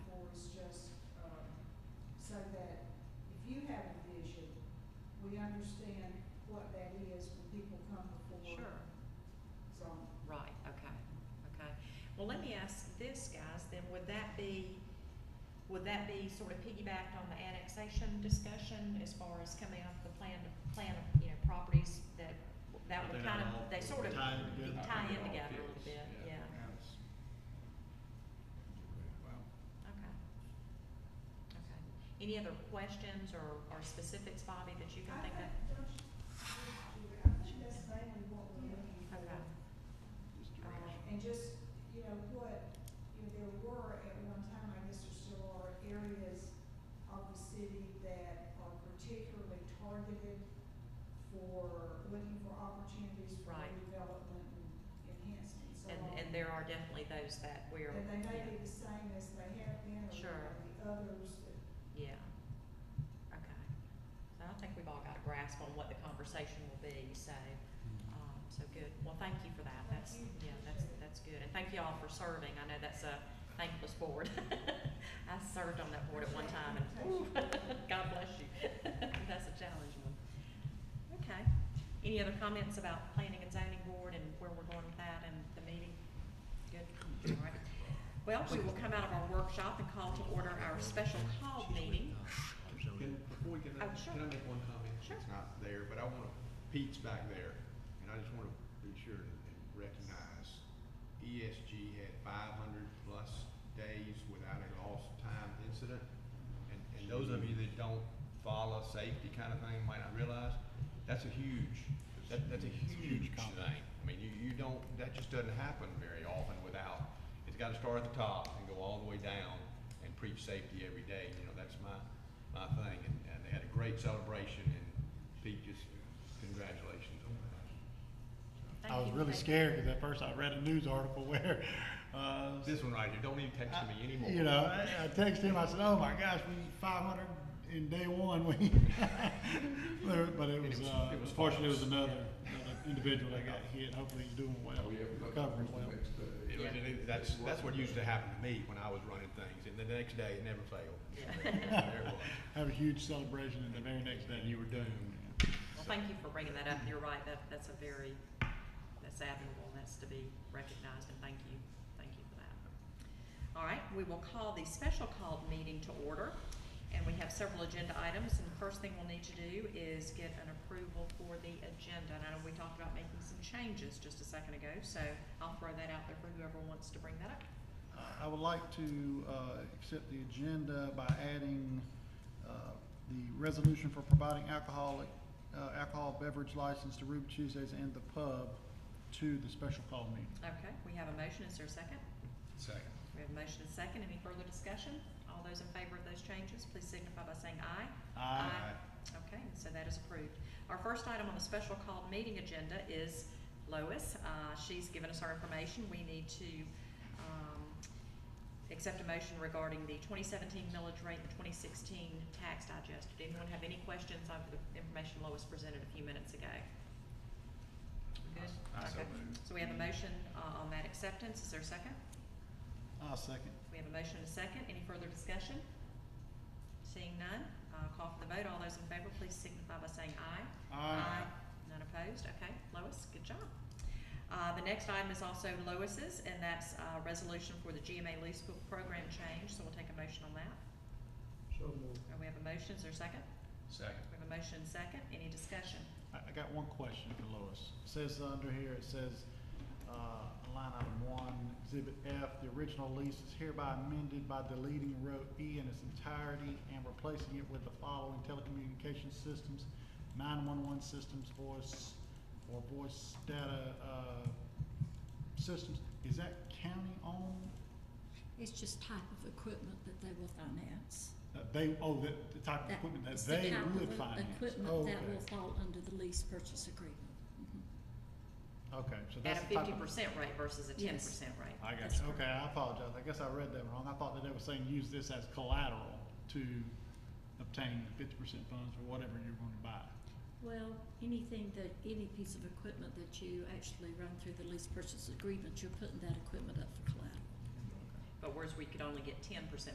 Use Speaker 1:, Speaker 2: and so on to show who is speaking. Speaker 1: um,
Speaker 2: Would that be sort of piggybacked on the annexation discussion as far as coming up with the plan, plan of, you know, properties that, that
Speaker 3: But
Speaker 2: would
Speaker 3: they're
Speaker 2: kind
Speaker 3: all
Speaker 2: of, they sort of tie
Speaker 3: tied
Speaker 2: in
Speaker 3: together.
Speaker 2: together
Speaker 4: All
Speaker 2: a little
Speaker 4: fits,
Speaker 2: bit,
Speaker 4: yeah.
Speaker 2: yeah,
Speaker 5: That's- Wow.
Speaker 2: okay. Okay. Any other questions or, or specifics, Bobby, that you can think of?
Speaker 1: I think that's mainly what we're looking for.
Speaker 2: Okay,
Speaker 5: Just
Speaker 2: all
Speaker 5: direction.
Speaker 2: right.
Speaker 1: And just, you know, what, you know, there were at one time, I guess there still are areas of the city that are particularly targeted for looking for opportunities for
Speaker 2: Right.
Speaker 1: redevelopment and enhancement, so.
Speaker 2: And, and there are definitely those that we're,
Speaker 1: And they may
Speaker 2: yeah.
Speaker 1: be the same as they have been, or
Speaker 2: Sure.
Speaker 1: there may be others that
Speaker 2: Yeah. Okay. So I think we've all got a grasp on what the conversation will be, so, um, so good. Well, thank you for that. That's,
Speaker 1: Thank you.
Speaker 2: yeah, that's, that's good. And thank you all for serving. I know that's a thankless board. I served on that board at one time and, whew, God bless you. That's a challenging one. Okay. Any other comments about planning and zoning board and where we're going with that and the meeting? Good, all right. Well, we will come out of our workshop and call to order our special call meeting.
Speaker 5: Can, before we get,
Speaker 2: Oh, sure.
Speaker 5: can I make one comment?
Speaker 2: Sure.
Speaker 5: It's not there, but I want, Pete's back there, and I just want to be sure and and recognize ESG E had five hundred plus days without a lost time incident. And, and those of you that don't follow safety kind of thing might not realize, that's a huge, that, that's a huge thing. I mean, you, you don't, that just doesn't happen very often without, it's gotta start at the top and go all the way down and preach safety every day, you know, that's my, my thing. And, and they had a great celebration and Pete, just congratulations on that.
Speaker 2: Thank
Speaker 6: I was
Speaker 2: you.
Speaker 6: really
Speaker 2: Thank you.
Speaker 6: scared because at first I read a news article where, uh,
Speaker 5: This one right here, don't even text me anymore.
Speaker 6: you know, I I texted him, I said, oh my gosh, we need five hundred in day one, we. But- But it
Speaker 5: And it
Speaker 6: was,
Speaker 5: was-
Speaker 6: uh,
Speaker 5: it was
Speaker 6: fortunately, it was
Speaker 5: false. Oh,
Speaker 6: another, another individual that got hit, hopefully he's doing well, recovering well.
Speaker 5: It was- it- That's, that's what used to happen to me when I was running things, and the next day, it never failed. There it was.
Speaker 6: Have a huge celebration and the very next day you were doomed.
Speaker 2: Well, thank you for bringing that up. You're right, that, that's a very, that's admirable, and that's to be recognized, and thank you, thank you for that. All right, we will call the special called meeting to order, and we have several agenda items, and the first thing we'll need to do is get an approval for the agenda. And I know we talked about making some changes just a second ago, so I'll throw that out there for whoever wants to bring that up.
Speaker 6: Uh, I would like to uh, accept the agenda by adding uh, the resolution for providing alcoholic, uh, alcohol beverage license to Ruby Tuesdays and the pub to the special call meeting.
Speaker 2: Okay, we have a motion. Is there a second?
Speaker 5: Second.
Speaker 2: We have a motion and a second. Any further discussion? All those in favor of those changes, please signify by saying aye. Okay, so that is approved. Our first item on the special called meeting agenda is Lois. Uh, She's given us our information. We need to um, accept a motion regarding the 2017 millage rate, the 2016 tax digest. Did anyone have any questions on the information Lois presented a few minutes ago? Good?
Speaker 5: I so
Speaker 2: Okay.
Speaker 5: moved.
Speaker 2: So we have a motion uh, on that acceptance. Is there a second?
Speaker 6: I'll second.
Speaker 2: We have a motion and a second. Any further discussion? Seeing none, uh, call for the vote. All those in favor, please signify by saying aye. None opposed? Okay, Lois, good job. Uh, the next item is also Lois's, and that's, uh, resolution for the GMA lease book program change, so we'll take a motion on that.
Speaker 4: So moved.
Speaker 2: And we have a motion, is there a second?
Speaker 5: Second.
Speaker 2: We have a motion and a second, any discussion?
Speaker 6: I, I got one question for Lois. It says under here, it says, uh, line item one, exhibit F, the original lease is hereby amended by deleting row E in its entirety and replacing it with the following telecommunications systems, nine-one-one systems, voice, or voice data, uh, systems. Is that county-owned?
Speaker 7: It's just type of equipment that they will finance.
Speaker 6: Uh, they, oh, the, the type of
Speaker 7: That-
Speaker 6: equipment that
Speaker 7: it's the
Speaker 6: they
Speaker 7: type of
Speaker 6: would
Speaker 7: e-
Speaker 6: finance? Oh,
Speaker 7: Equipment that will fall under the lease purchase agreement. Mhm.
Speaker 6: Okay, okay, so
Speaker 2: At
Speaker 6: that's
Speaker 2: a
Speaker 6: the type
Speaker 2: fifty
Speaker 6: of-
Speaker 2: percent rate versus a ten
Speaker 7: Yes.
Speaker 2: percent rate.
Speaker 6: I got
Speaker 7: That's
Speaker 6: you. Okay, I apologize. I guess I read that wrong. I thought that they were saying use this as collateral to obtain the fifty percent funds for whatever you're going to buy.
Speaker 7: Well, anything that, any piece of equipment that you actually run through the lease purchase agreement, you're putting that equipment up for collateral.
Speaker 2: But whereas we could only get ten percent